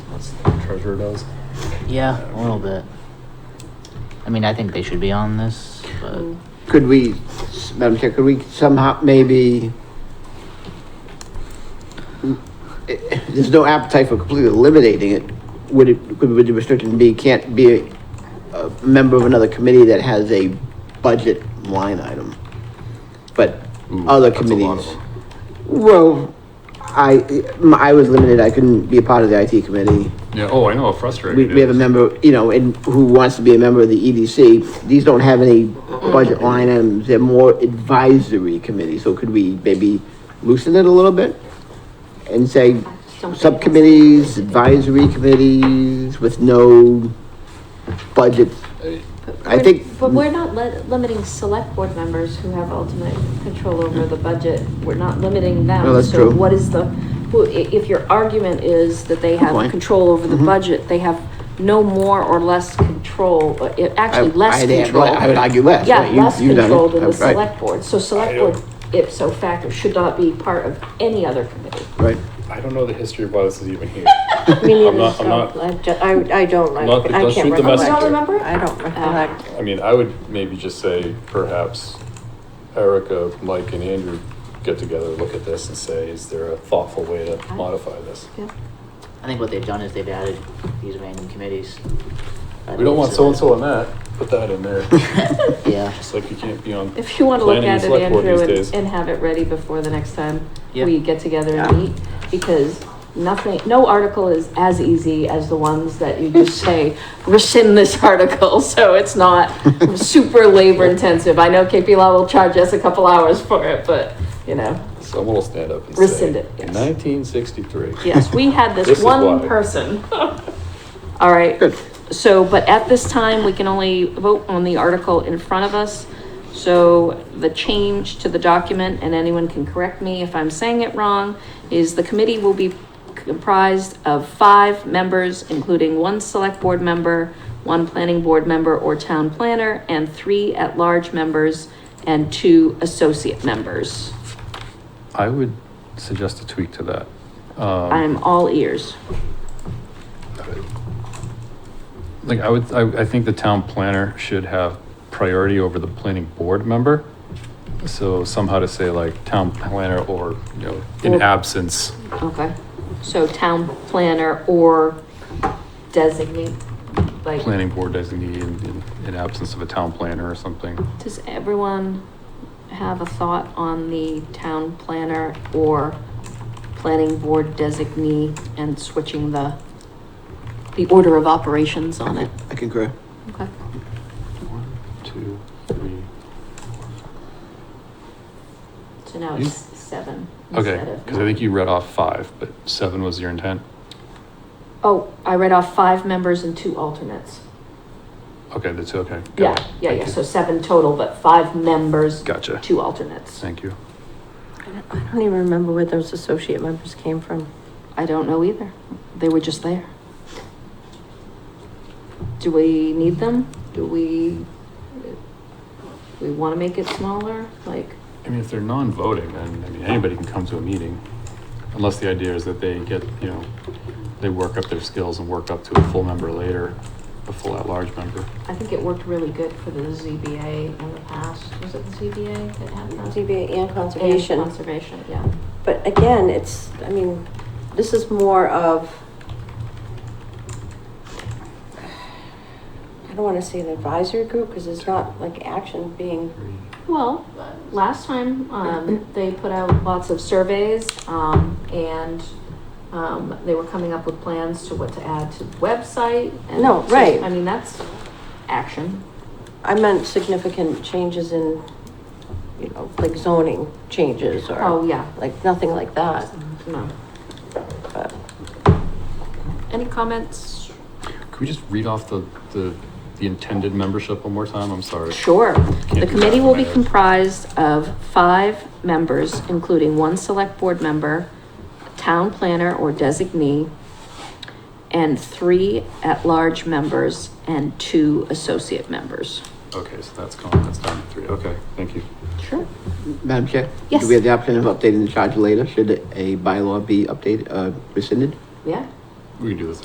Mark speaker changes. Speaker 1: as the treasurer does.
Speaker 2: Yeah, a little bit. I mean, I think they should be on this, but
Speaker 3: Could we, Madam Chair, could we somehow maybe? There's no appetite for completely eliminating it. Would it, could would the restriction be, can't be a, a member of another committee that has a budget line item? But other
Speaker 1: Hmm, that's a lot of
Speaker 3: committees. Well, I, I was limited. I couldn't be a part of the IT committee.
Speaker 1: Yeah, oh, I know, how frustrating.
Speaker 3: We,
Speaker 1: it
Speaker 3: we have a
Speaker 1: is.
Speaker 3: member, you know, and who wants to be a member of the EDC, these don't have any budget line items, they're more advisory committees, so could we maybe loosen it a little bit? And say, subcommittees, advisory committees with no budget, I
Speaker 4: We're-
Speaker 3: think-
Speaker 4: But we're not li- limiting select board members who have ultimate control over the budget. We're not limiting them.
Speaker 3: No, that's
Speaker 4: So
Speaker 3: true.
Speaker 4: what is the, who- i- if your argument is that they have
Speaker 3: point. Mm-hmm.
Speaker 4: control over the budget, they have no more or less control, uh, i- actually
Speaker 3: I-
Speaker 4: less
Speaker 3: I'd add-
Speaker 4: control.
Speaker 3: I would argue less,
Speaker 4: Yeah,
Speaker 3: right, you-
Speaker 4: less
Speaker 3: you've done it,
Speaker 4: control than the
Speaker 3: right.
Speaker 4: select board. So select board, if so facto, should not be part of any other committee.
Speaker 3: right?
Speaker 1: I don't know the history of why this is even here.
Speaker 5: Me
Speaker 1: I'm
Speaker 5: neither,
Speaker 1: not- I'm not-
Speaker 5: so I ju- I, I don't, I
Speaker 1: Not- it
Speaker 5: I
Speaker 1: does
Speaker 5: can't
Speaker 1: suit the
Speaker 5: recollect.
Speaker 1: message.
Speaker 4: You don't remember?
Speaker 5: I don't recollect.
Speaker 1: I mean, I would maybe just say perhaps Erica, Mike and Andrew get together, look at this and say, is there a thoughtful way to modify this?
Speaker 2: I think what they've done is they've added these random committees.
Speaker 1: We don't want so-and-so on that, put that in there.
Speaker 2: Yeah,
Speaker 1: Just like you can't be on.
Speaker 4: If you want to look
Speaker 1: um, planning and
Speaker 4: at it,
Speaker 1: select board
Speaker 4: Andrew,
Speaker 1: these
Speaker 4: and,
Speaker 1: days.
Speaker 4: and have it ready before the next time
Speaker 2: Yeah.
Speaker 4: we get together
Speaker 5: Yeah.
Speaker 4: and meet, because nothing, no article is as easy as the ones that you just say, rescind this article, so it's not super labor intensive. I know KP Law will charge us a couple hours for it, but, you know,
Speaker 1: Someone will stand up and say.
Speaker 4: Rescind it, yes.
Speaker 1: Nineteen sixty-three.
Speaker 4: yes, we had
Speaker 1: This
Speaker 4: this
Speaker 1: is why.
Speaker 4: one person. All right.
Speaker 3: Good.
Speaker 4: So, but at this time, we can only vote on the article in front of us. So the change to the document, and anyone can correct me if I'm saying it wrong, is the committee will be comprised of five members, including one select board member, one planning board member or town planner, and three at-large members and two associate members.
Speaker 6: I would suggest a tweak to that. Um,
Speaker 4: I'm all ears.
Speaker 6: Like, I would, I, I think the town planner should have priority over the planning board member. So somehow to say like town planner or, you know, in
Speaker 4: Or-
Speaker 6: absence,
Speaker 4: Okay, so town planner or designate, like.
Speaker 6: planning board designee in, in, in absence of a town planner or something.
Speaker 4: Does everyone have a thought on the town planner or planning board designee and switching the, the order of operations on it?
Speaker 3: I concur.
Speaker 4: Okay.
Speaker 1: One, two, three.
Speaker 4: So now it's seven. instead
Speaker 6: Mm-hmm. Okay,
Speaker 4: of
Speaker 6: because I think you read off five, but seven was your intent?
Speaker 4: nine. Oh, I read off five members and two alternates.
Speaker 6: Okay, that's okay. got
Speaker 4: Yeah,
Speaker 6: it.
Speaker 4: yeah,
Speaker 6: Thank
Speaker 4: yeah,
Speaker 6: you.
Speaker 4: so seven total, but five members,
Speaker 6: Gotcha,
Speaker 4: two alternates.
Speaker 6: thank you.
Speaker 5: I don't- Oh. I don't even remember where those associate members came from.
Speaker 4: I don't know either. They were just there. Do we need them? Do we, we want to make it smaller? Like,
Speaker 6: I mean, if they're non-voting, then, I mean, anybody can come to a meeting, unless the idea is that they get, you know, they work up their skills and work up to a full member later, a full at-large member.
Speaker 4: I think it worked really good for the ZBA in the past. Was it the ZBA that had that?
Speaker 5: ZBA and
Speaker 4: And
Speaker 5: conservation,
Speaker 4: Conservation, yeah.
Speaker 5: but again, it's, I mean, this is more of, I don't wanna say an advisory group, because it's not like action being,
Speaker 4: Well, last time, um, they put out lots of surveys, um, and, um, they were coming up with plans to what to add to the website. and
Speaker 5: No,
Speaker 4: so,
Speaker 5: right.
Speaker 4: I mean, that's action.
Speaker 5: I meant significant changes in, you know, like zoning changes or.
Speaker 4: Oh, yeah,
Speaker 5: like nothing like that.
Speaker 4: no.
Speaker 5: But
Speaker 4: Any comments?
Speaker 6: Could we just read off the, the, the intended membership one more time? I'm sorry.
Speaker 4: Sure. The
Speaker 6: do
Speaker 4: committee
Speaker 6: that
Speaker 4: will be
Speaker 6: by-
Speaker 4: comprised of five members, including one select board member, town planner or designee, and three at-large members and two associate members.
Speaker 6: Okay, so that's gone, that's down to three, okay, thank you.
Speaker 4: Sure.
Speaker 3: Madam Chair?
Speaker 4: Yes.
Speaker 3: Do we have the option of updating the charge later, should a bylaw be updated, uh, rescinded?
Speaker 4: Yeah.
Speaker 6: We can do this